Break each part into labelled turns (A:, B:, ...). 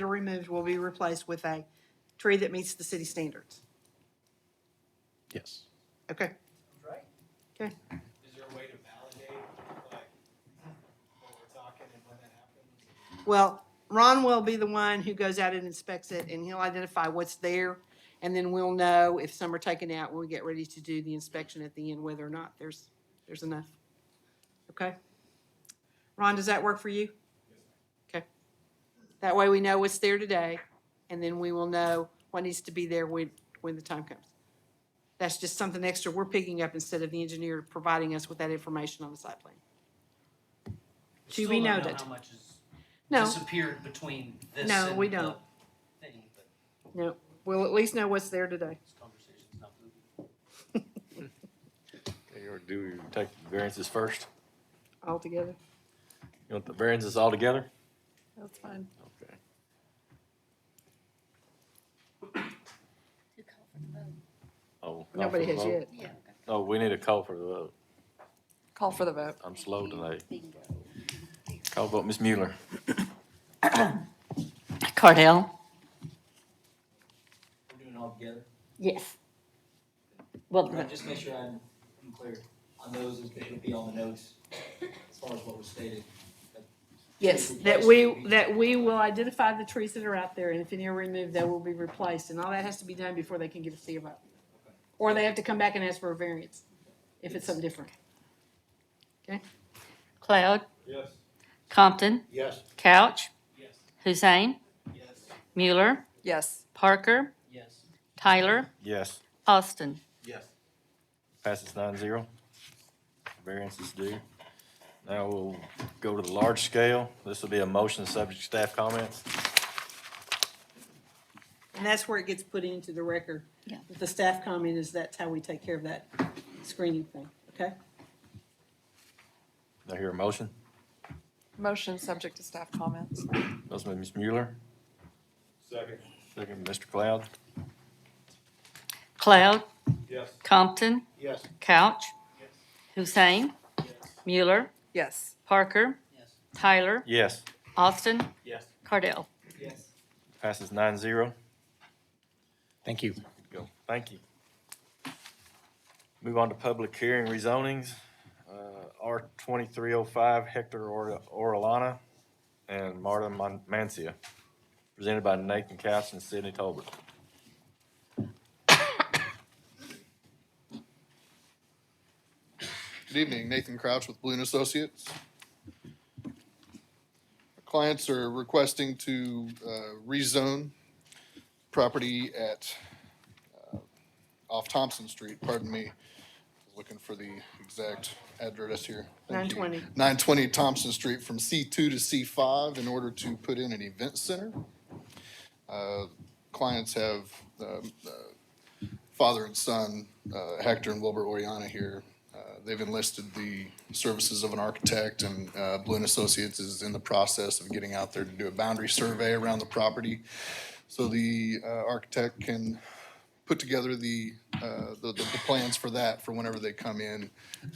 A: or removed will be replaced with a tree that meets the city standards.
B: Yes.
A: Okay,
C: Right.
A: okay.
C: Is there a way to validate, like, what we're talking and when that happens?
A: Well, Ron will be the one who goes out and inspects it, and he'll identify what's there, and then we'll know if some are taken out when we get ready to do the inspection at the end, whether or not there's, there's enough. Okay? Ron, does that work for you? Okay. That way we know what's there today, and then we will know what needs to be there when, when the time comes. That's just something extra we're picking up instead of the engineer providing us with that information on the site plan. To be
D: Still don't
A: noted.
D: know how much has
A: No.
D: disappeared between this
A: No,
D: and
A: we
D: the
A: don't.
D: thing, but
A: No, we'll at least know what's there today.
D: this conversation's not moving.
B: Or do we take the variances first?
A: altogether.
B: You want the variances all together?
A: That's fine.
B: Okay.
E: To call for the vote.
B: Oh. call for
A: Nobody
B: the
A: has
B: vote?
A: yet.
E: Yeah.
B: Oh, we need a call for the vote.
F: Call for the vote.
B: I'm slow today.
E: Bingo.
B: Call vote, Ms. Mueller.
F: Cardell?
D: We're doing it all together.
F: Yes. Well,
D: Right,
F: the-
D: Just make sure I'm, I'm clear on those, it's gonna be on the notes as far as what was stated.
F: yes,
A: That we, that we will identify the trees that are out there, and if any are removed, they will be replaced, and all that has to be done before they can give us the vote. Or they have to come back and ask for a variance, if it's something different.
G: Cloud,
C: Yes.
G: Compton,
C: Yes.
G: Couch,
D: Yes,
G: Hussein,
D: yes,
G: Mueller,
F: yes,
G: Parker,
D: yes.
G: Tyler,
B: Yes.
G: Austin.
C: Yes.
B: Passes nine zero. Variance is due. Now we'll go to the large scale. This will be a motion subject to staff comments.
A: And that's where it gets put into the record.
G: Yeah.
A: With The staff comment is that's how we take care of that screening thing, okay?
B: Do I hear a motion?
F: motion subject to staff comments.
B: Motion by Ms. Mueller,
C: Second.
B: second by Mr. Cloud.
G: Cloud,
C: Yes.
G: Compton,
C: Yes.
G: Couch,
D: Yes.
G: Hussein, Mueller,
F: Yes,
G: Parker,
D: Yes.
G: Tyler,
B: Yes.
G: Austin,
D: Yes.
G: Cardell.
D: Yes.
B: Passes nine zero.
H: Thank you.
B: Go. Thank you. Move on to public hearing rezonings. Uh, R twenty-three oh five Hector Or- Orellana and Marta Man- Mancia, presented by Nathan Couch and Sidney Tolbert.
I: Good evening, Nathan Crouch with Balloon Associates. Our Clients are requesting to uh, rezone property at, uh, off Thompson Street, pardon me. Looking for the exact address here. Thank you.
A: 920.
I: 920 Thompson Street from C2 to C5 in order to put in an event center. Uh, Clients have um, uh, father and son, uh, Hector and Wilbur Oriana here. Uh, They've enlisted the services of an architect, and uh, Balloon Associates is in the process of getting out there to do a boundary survey around the property. So the uh, architect can put together the, uh, the, the plans for that for whenever they come in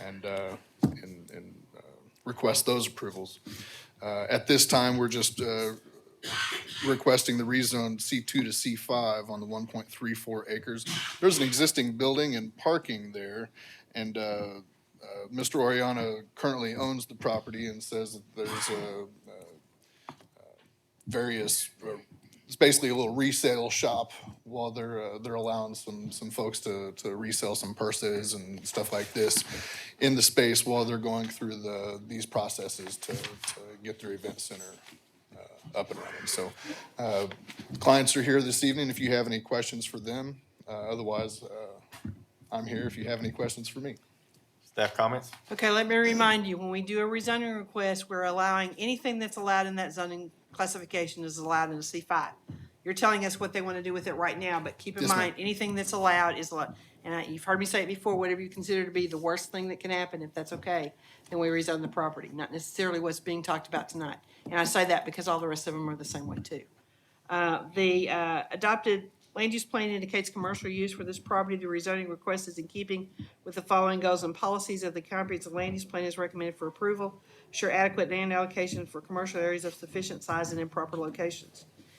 I: and, uh, and, and uh, request those approvals. Uh, At this time, we're just uh, requesting the rezone C2 to C5 on the 1.34 acres. There's an existing building and parking there, and uh, uh, Mr. Oriana currently owns the property and says that there's a uh, various, or it's basically a little resale shop while they're, uh, they're allowing some, some folks to, to resell some purses and stuff like this in the space while they're going through the, these processes to, to get their event center uh, up and running. So uh, clients are here this evening if you have any questions for them. Uh, Otherwise, uh, I'm here if you have any questions for me.
B: Staff comments?
A: Okay, let me remind you, when we do a rezoning request, we're allowing, anything that's allowed in that zoning classification is allowed in a C five. You're telling us what they want to do with it right now, but keep in
I: Yes, ma'am.
A: mind, anything that's allowed is allowed. And I- you've heard me say it before, whatever you consider to be the worst thing that can happen, if that's okay, then we rezone the property, not necessarily what's being talked about tonight. And I say that because all the rest of them are the same way too. Uh, The uh, adopted land use plan indicates commercial use for this property. The rezoning request is in keeping with the following goals and policies of the comprehensive land use plan is recommended for approval. Sure adequate land allocation for commercial areas of sufficient size and in proper locations.